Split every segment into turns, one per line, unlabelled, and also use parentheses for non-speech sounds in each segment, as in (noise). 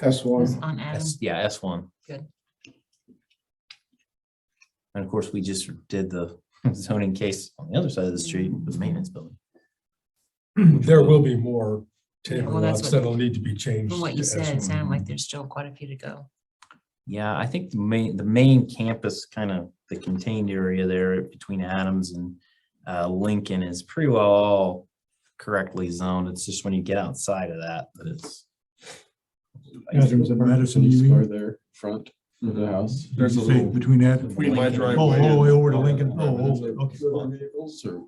That's
was
(clears throat)
one.
on Adam.
S, yeah, S one.
Good.
And of course, we just did the (laughs) zoning case on the other side of the street, the maintenance building.
There will be more
Yeah,
table
well, that's
lots
what-
that'll need to be changed.
From what you
as
said,
well.
it sounded like there's still quite a few to go.
Yeah, I think the main, the main campus, kind of the contained area there between Adams and uh, Lincoln is pretty well all correctly zoned. It's just when you get outside of that, that it's.
Yeah, there was a Madison,
Madison
E
you
Square
mean?
there, front of the house.
There's a little. Between that. and-
Between my
Oh,
driveway
all the
and-
way over to Lincoln.
Five
Oh,
minutes
oh,
of-
okay.
of Vehicles or?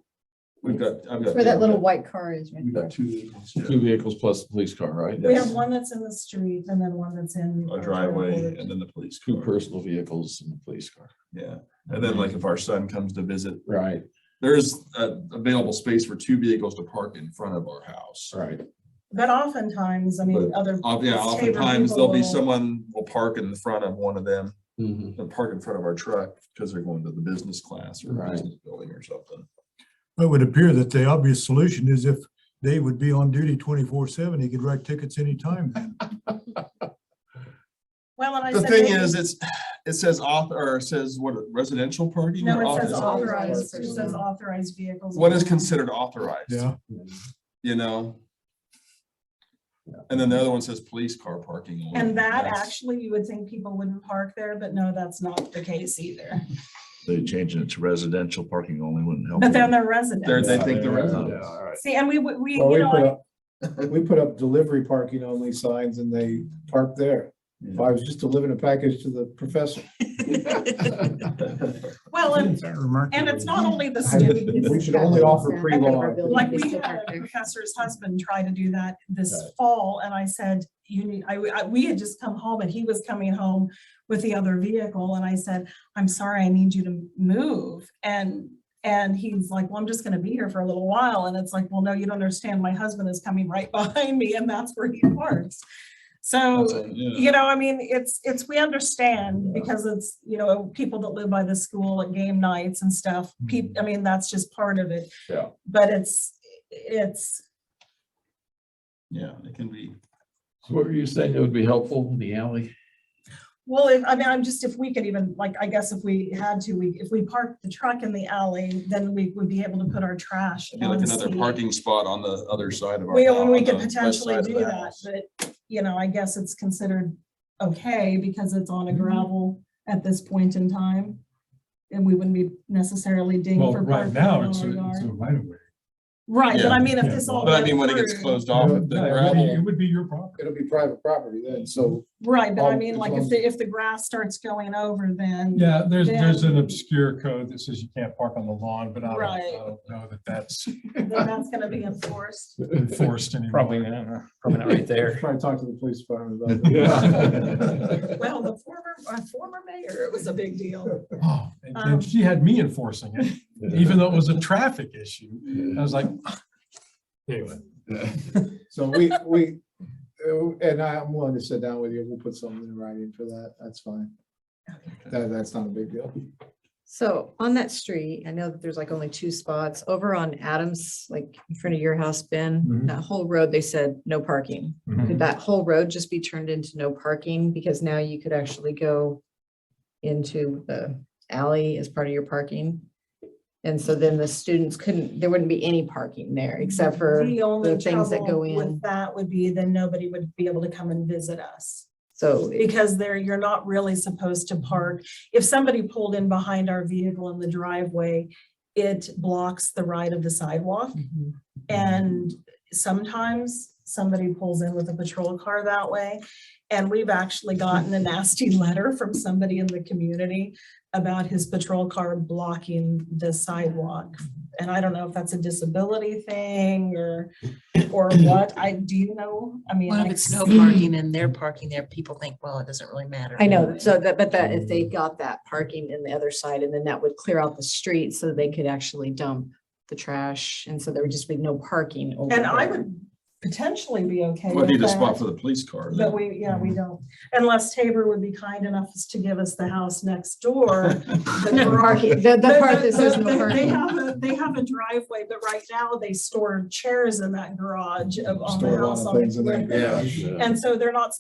We've got, I've got.
Where that little white car is right
We've
there.
got two vehicles. Two vehicles plus the police car, right?
We have one that's in the street and then one that's in.
A driveway and then the police
Two
car.
personal vehicles and the police car.
Yeah, and then like if our son comes to visit,
Right,
there's uh available space for two vehicles to park in front of our house.
right.
But oftentimes, I mean, other,
Uh, yeah,
It's favored
oftentimes there'll be
people will-
someone will park in the front of one of them,
Mhm.
they'll park in front of our truck because they're going to the business class or
Right.
business building or something.
It would appear that the obvious solution is if Dave would be on duty twenty-four seven, he could write tickets
(laughs)
anytime then.
well, and I
The
said.
thing
maybe-
is, it's, it says author, or it says what, residential parking?
No,
or
it says
author-
authorized,
Authorized.
it says authorized vehicles.
What is considered authorized?
Yeah,
You know? And then the other one says police car parking. only.
And that
That's-
actually, you would think people wouldn't park there, but no, that's not the case either.
They changing it to residential parking only wouldn't help.
But then
you.
they're
They're-
residents.
they think the
Yeah,
residents.
yeah, all right.
See, and we, would- we,
Well,
you
we
know,
put
I-
up, we put up delivery parking only signs and they parked there. If I was just delivering a package to the
(laughs)
professor.
well, and,
That remarkable.
and it's not only the
(laughs) I-
students.
We should only offer pre-law.
Like we had a professor's husband try to do that this fall and I said, you need, I, I- we had just come home and he was coming home with the other vehicle and I said, I'm sorry, I need you to move. And, and he's like, well, I'm just gonna be here for a little while. And it's like, well, no, you don't understand. My husband is coming right (laughs) behind me and that's where he parks. So
that's a- yeah.
you know, I mean, it's, it's, we understand because it's, you know, people that live by the school and game nights and stuff.
Mm-hmm.
Peop, I mean, that's just part of it.
Yeah.
But it's, it's,
Yeah, it can be.
So What were you saying? It would be helpful in the alley?
well, if- I mean, I'm just, if we could even, like, I guess if we had to, we, if we parked the truck in the alley, then we would be able to put our trash.
It'd be like
on
another
the-
parking spot on the other side of our.
We, and we
could
could potentially do that, but, you know, I guess it's considered okay because it's on a
Mhm.
gravel at this point in time. And we wouldn't be necessarily dinged
Well,
for
right
parking in
now,
our
it's a, it's a
yard.
right of way.
Right, but I
Yeah.
mean, if
Yeah.
this all.
But I mean, when it
went
gets
through-
closed
No,
off,
no,
with
It
the
would be- it
gravel,
would be your property.
It'll be private property then, so
Right, but I
Um,
mean,
as
like
long
if
as-
the, if the grass starts going over, then.
Yeah, there's, there's an
Then-
obscure code that says you can't park on the lawn, but I don't, I
Right.
don't know that that's
Then that's gonna be enforced.
enforced anymore.
Probably not, probably not
(laughs)
right there.
try to talk to the police department about
(laughs)
that.
(laughs)
Yeah.
Well, the former, our former mayor, it was a big deal.
Oh, and-
Um,
and she had me enforcing it, even though it was a traffic issue. I was like, anyway.
So we, we, uh, and I- I'm willing to sit down with you. We'll put something in writing for that. That's fine. That, that's not a big deal.
So on that street, I know that there's like only two spots over on Adams, like in front of your house, Ben,
Mm-hmm.
Mhm.
that whole road, they said no parking.
mm-hmm.
Could that whole road just be turned into no parking? Because now you could actually go into the alley as part of your parking. And so then the students couldn't, there wouldn't be any parking there except for,
The only
the things that
trouble
go in.
with that would be then nobody would be able to come and visit us.
so
Because there, you're not really supposed to park. If somebody pulled in behind our vehicle in the driveway, it blocks the right of the sidewalk.
Mhm.
And sometimes somebody pulls in with a patrol car that way. And we've actually gotten a nasty (laughs) letter from somebody in the community about his patrol car blocking the sidewalk. And I don't know if that's a disability thing or,
(clears throat)
or what. I, do you know? I mean.
Well, if
I-
it's no parking and they're parking there, people think, well, it doesn't really matter.
I know, so that, but that, if they got that parking in the other side, and then that would clear out the street so they could actually dump the trash, and so there would just be no parking. over
And I
there.
would potentially be okay.
would need a
with
spot
that,
for the police car. then.
But we, yeah, we don't, unless Tabor would be kind enough to give us the house next door.
(laughs)
the
No
garage
parking, the, the
But
part that says
they-
no
They
parking.
have a, they have a driveway, but right now they store chairs in that garage of on the
Store a lot
Oh, house.
of
on the
things in that
corner.
garage.
Yeah.
And so they're not